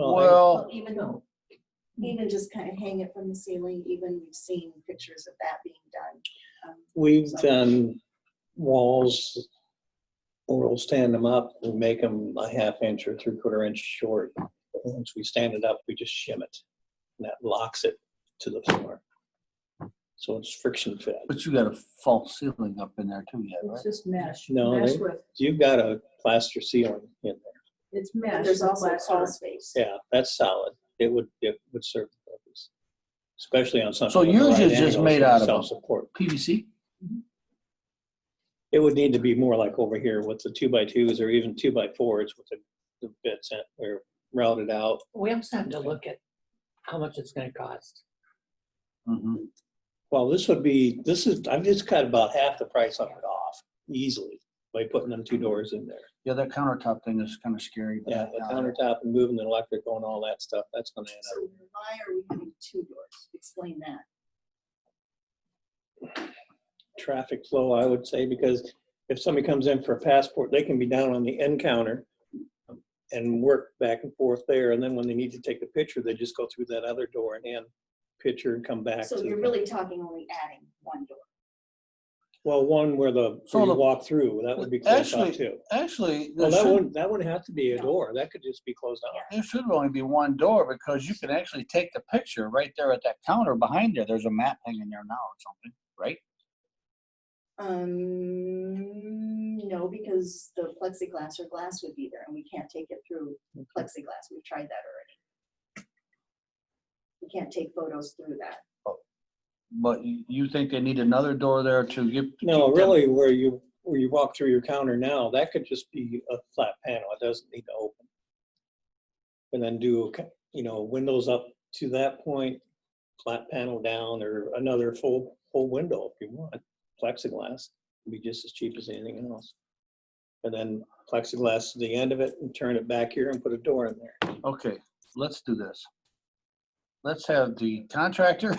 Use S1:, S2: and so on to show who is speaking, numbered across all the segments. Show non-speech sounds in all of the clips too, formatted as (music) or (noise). S1: Well,
S2: Even though.
S3: Even just kind of hang it from the ceiling, even we've seen pictures of that being done. Um,
S1: we've done walls, we'll stand them up, we make them a half inch or three quarter inch short. Once we stand it up, we just shim it, and that locks it to the floor. So it's friction fed.
S4: But you got a false ceiling up in there too yet,
S2: It's
S4: right?
S2: just mesh.
S1: No,
S2: Mesh
S1: they-
S2: with,
S1: You've got a plaster ceiling in there.
S2: it's mesh.
S3: but There's
S2: with
S3: also
S2: plaster.
S3: crawl space.
S1: Yeah, that's solid. It would, it would serve the purpose, especially on something.
S4: So
S1: with the
S4: yours
S1: right
S4: is just
S1: angles
S4: made
S1: and
S4: out of-
S1: Self-support.
S4: PVC?
S1: It would need to be more like over here with the two by twos or even two by fours with the, the bits in, or routed out.
S5: We also have to look at how much it's gonna cost.
S4: Mhm.
S1: Well, this would be, this is, I've just cut about half the price of it off easily by putting them two doors in there.
S4: Yeah, that countertop thing is kind of scary. but
S1: Yeah,
S4: I
S1: the
S4: doubt it.
S1: countertop and moving the electrical and all that stuff, that's gonna end up.
S3: So why are we having two doors? Explain that.
S1: Traffic flow, I would say, because if somebody comes in for a passport, they can be down on the end counter and work back and forth there. And then when they need to take a picture, they just go through that other door and hand picture and come back.
S3: So
S1: to
S3: you're
S1: the-
S3: really talking only adding one door.
S1: Well, one where the,
S4: So
S1: where
S4: the-
S1: you walk through, that would be closed off
S4: Actually,
S1: too.
S4: Actually,
S1: Well,
S4: there
S1: that
S4: should,
S1: wouldn't, that wouldn't have to be a
S3: No.
S1: door, that could just be closed off.
S4: there should only be one door because you can actually take the picture right there at that counter behind there. There's a map hanging there now or something, right?
S3: Um, no, because the plexiglass or glass would be there and we can't take it through plexiglass. We've tried that already. We can't take photos through that.
S4: But you you think they need another door there to get?
S1: No,
S4: keep them-
S1: really, where you, where you walk through your counter now, that could just be a flat panel, it doesn't need to open. And then do, a ca- you know, windows up to that point, flat panel down, or another full, full window if you want. Plexiglass would be just as cheap as anything else. And then plexiglass to the end of it and turn it back here and put a door in there.
S4: Okay, let's do this. Let's have the contractor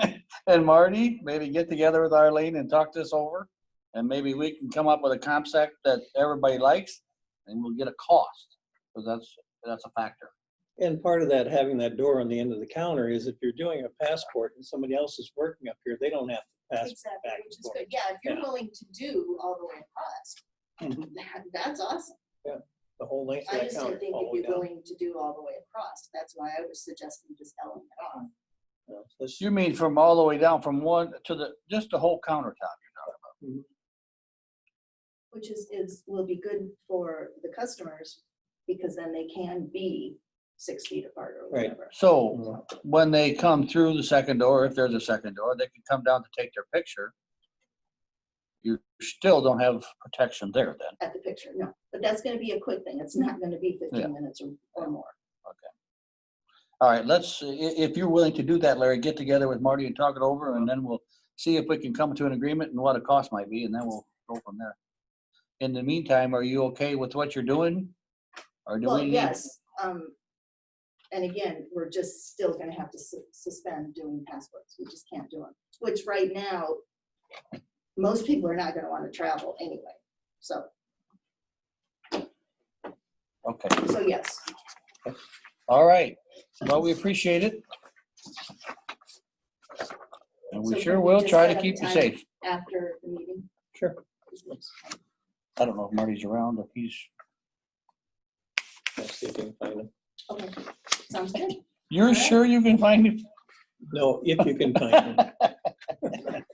S4: (laughs) and Marty maybe get together with Arlene and talk this over. And maybe we can come up with a concept that everybody likes and we'll get a cost, because that's, that's a factor.
S1: And part of that, having that door on the end of the counter is if you're doing a passport and somebody else is working up here, they don't have to pass.
S3: Exactly,
S1: back
S3: which
S1: and
S3: is
S1: forth.
S3: good. Yeah, if you're
S1: Yeah.
S3: willing to do all the way across,
S1: Mhm.
S3: (laughs) that, that's awesome.
S1: The whole length
S3: I
S1: of
S3: just
S1: that counter.
S3: didn't think
S1: all the way
S3: you'd be
S1: down.
S3: willing to do all the way across. That's why I was suggesting just Ellen it on.
S1: Yeah, that's-
S4: You mean from all the way down, from one to the, just the whole countertop?
S3: Which is, is, will be good for the customers because then they can be six feet apart or
S1: Right.
S3: whatever.
S4: So when they come through the second door, if there's a second door, they can come down to take their picture. You still don't have protection there then.
S3: At the picture, no. But that's gonna be a quick thing. It's not gonna be
S4: Yeah.
S3: fifteen minutes or, or more.
S4: All right, let's, i- if you're willing to do that, Larry, get together with Marty and talk it over, and then we'll see if we can come to an agreement and what a cost might be, and then we'll go from there. In the meantime, are you okay with what you're doing? Or do
S3: Well,
S4: we need?
S3: yes, um, and again, we're just still gonna have to su- suspend doing passports. We just can't do them, which right now, most people are not gonna wanna travel anyway. So,
S4: Okay,
S3: so yes,
S4: all right. Well, we appreciate it. And
S3: So
S4: we
S3: can
S4: sure
S3: we
S4: will
S3: just
S4: try
S3: set
S4: to
S3: up
S4: keep you
S3: time?
S4: safe.
S3: after the meeting.
S1: Sure.
S4: I don't know if Marty's around, if he's,
S1: let's see if we can find them.
S3: Okay, sounds good.
S4: you're
S3: right.
S4: sure you can find him?
S1: No, if you can find
S3: (laughs)
S1: them.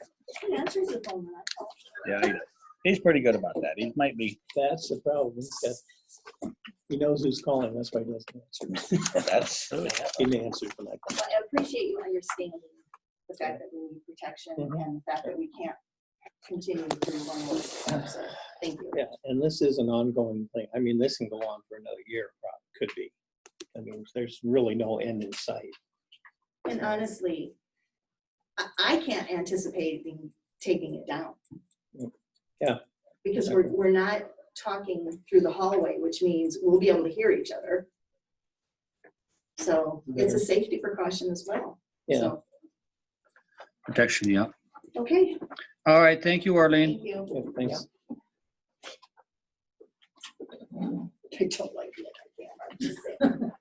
S3: He answers the phone when I call.
S4: Yeah, he's pretty good about that. He might be,
S1: That's the problem. He's got- He knows who's calling, that's why he doesn't answer. (laughs)
S4: that's.
S1: He didn't answer for like,
S3: But I appreciate you understanding the fact that we need protection
S1: Mhm.
S3: and the fact that we can't continue to do one more. So, thank you.
S1: yeah, and this is an ongoing thing. I mean, this can go on for another year, probably, could be. I mean, there's really no end in sight.
S3: And honestly, I, I can't anticipate being- taking it down.
S1: Yeah.
S3: Because we're, we're not talking through the hallway, which means we'll be able to hear each other. So it's a safety precaution as well.
S1: Yeah,
S3: So,
S4: Protection, yeah.
S3: Okay,
S4: All right, thank you, Arlene.
S3: thank you.
S1: yeah, thanks.
S3: I don't like it. I can't, I'm just saying.